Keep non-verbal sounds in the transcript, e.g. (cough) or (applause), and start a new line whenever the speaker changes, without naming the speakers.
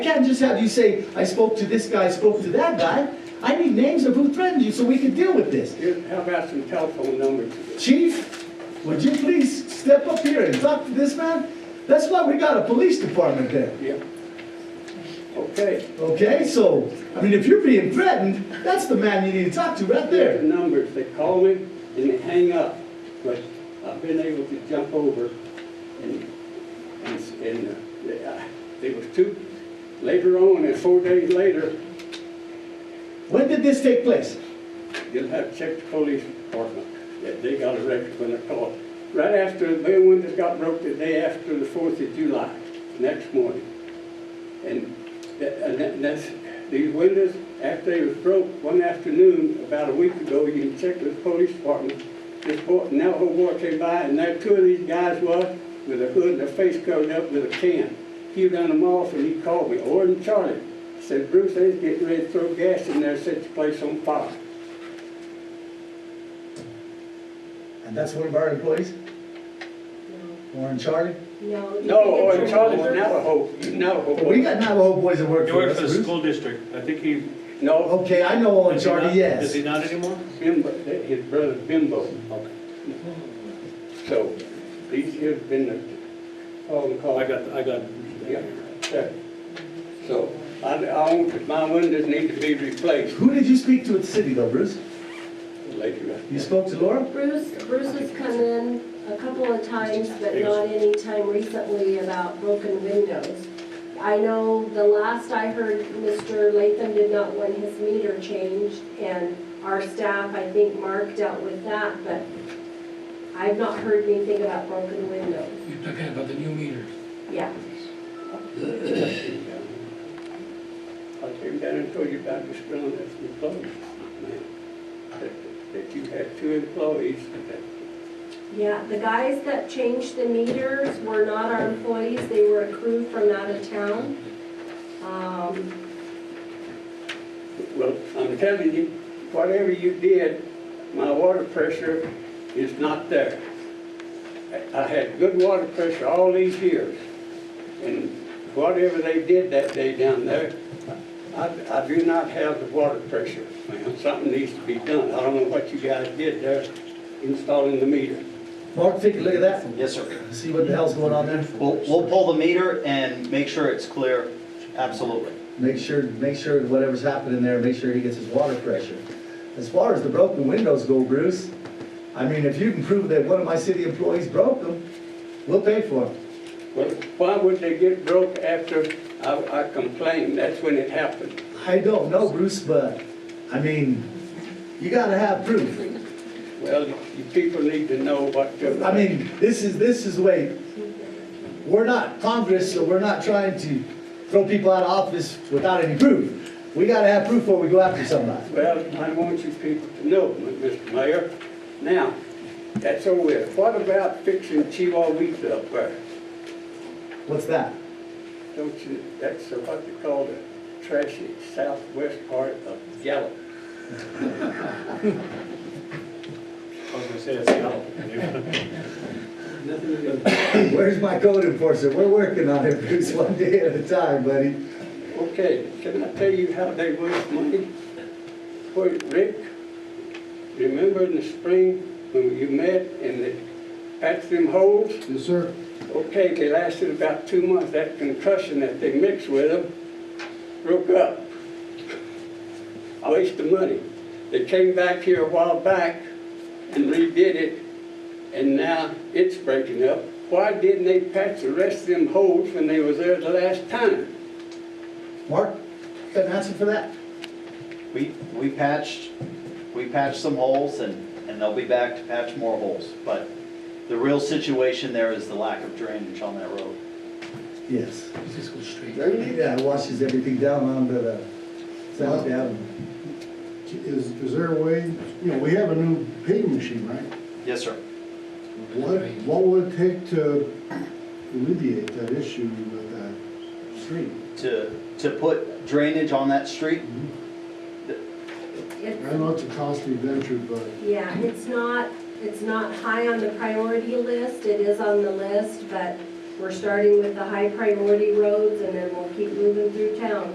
can't just have you say, I spoke to this guy, I spoke to that guy. I need names of who threatened you so we can deal with this.
Here, How about some telephone numbers?
Chief, would you please step up here and talk to this man? That's why we got a police department there.
Yeah. Okay,
Okay, so, I mean, if you're being threatened, that's the man you need to talk to right
there's the
there.
numbers. They call me and they hang up, but I've been able to jump over and, and, and uh, they- I- they was two, later on, and four days later,
When did this take place?
you'll have to check the police department. that They got a record when they're called. Right after, they one that got broke the day after the Fourth of July, next morning. And that, and that- and that's, these windows, after they was broke, one afternoon, about a week ago, you can check with the police department. This boy, now whole boy came by, and there two of these guys was with a hood and their face covered up with a can. He done them off, and he called me, Orton Charlie. Said, Bruce, they was getting ready to throw gas in there, set the place on fire.
And that's one of our employees, Warren Charlie.
No.
No,
you think
oh,
it's
and Charlie's
your-
Navajo, Navajo.
Well, we got Navajo boys that work
He
for
worked
us.
for the
Bruce.
school district, I think he.
No,
Okay, I know Warren
does he not-
Charlie, Oh, yes.
Does he not anymore?
Bimbo, his brother Bimbo. So, these here's been the, phone call.
I got, I got.
Yeah, sure. So, I, I want, my windows need to be replaced
Who did you speak to at the city though, Bruce?
later.
You spoke to Laura?
Bruce, Bruce has come in a couple of times, but not any time recently about broken windows. I know the last I heard, Mr. Latham did not want his meter changed, and our staff, I think Mark dealt with that, but I've not heard anything about broken windows.
You're talking about the new meters.
Yeah,
I came down and told you about this girl that's employed, ma'am. That- That you had two employees that
yeah, the guys that changed the meters were not our employees, they were a crew from out of town. Um,
Well, I'm telling you, whatever you did, my water pressure is not there. I- I had good water pressure all these years, and whatever they did that day down there, I, I do not have the water pressure, ma'am. Something needs to be done. I don't know what you guys did there installing the meter.
Mark, take a look at that,
Yes, sir.
see what the hell's going on there.
We'll, we'll pull the meter and make sure it's clear, absolutely.
Make sure, make sure whatever's happening there, make sure he gets his water pressure. As far as the broken windows go, Bruce, I mean, if you can prove that one of my city employees broke them, we'll pay for them.
Well, why would they get broke after I I complained? That's when it happened.
I don't know, Bruce, but, I mean, you gotta have proof.
Well, you people need to know what to...
I mean, this is, this is the way, we're not Congress, so we're not trying to throw people out of office without any proof. We gotta have proof before we go after somebody.
Well, I want you people to know, Mr. Mayor, now, that's over with. What about fixing Chihuahuita up there?
What's that?
Don't you, that's what they call the trashy southwest part of Gallup.
I was gonna say that's Seattle.
Where's my code enforcer? We're working on it, (laughs) Bruce, one day at a time, buddy.
Okay, can I tell you how they waste money? Wait, Rick, remember in the spring when you met and they patched them holes?
Yes, sir.
Okay, they lasted about two months. That concussion that they mixed with them broke up. I wasted money. They came back here a while back and redid it, and now it's breaking up. Why didn't they patch the rest of them holes when they was there the last time?
Mark, got an answer for that?
We, we patched, we patched some holes and, and they'll be back to patch more holes. But the real situation there is the lack of drainage on that road.
Yes.
Let's go straight.
Yeah, it washes everything down onto the South Avenue.
Is, is there a way, you know, we have a new paving machine, right?
Yes, sir.
What, what would it take to alleviate that issue with that street?
To, to put drainage on that street,
it's-
I know it's a costly venture, but
Yeah, it's not, it's not high on the priority list, it is on the list, but We're starting with the high priority roads and then we'll keep moving through town.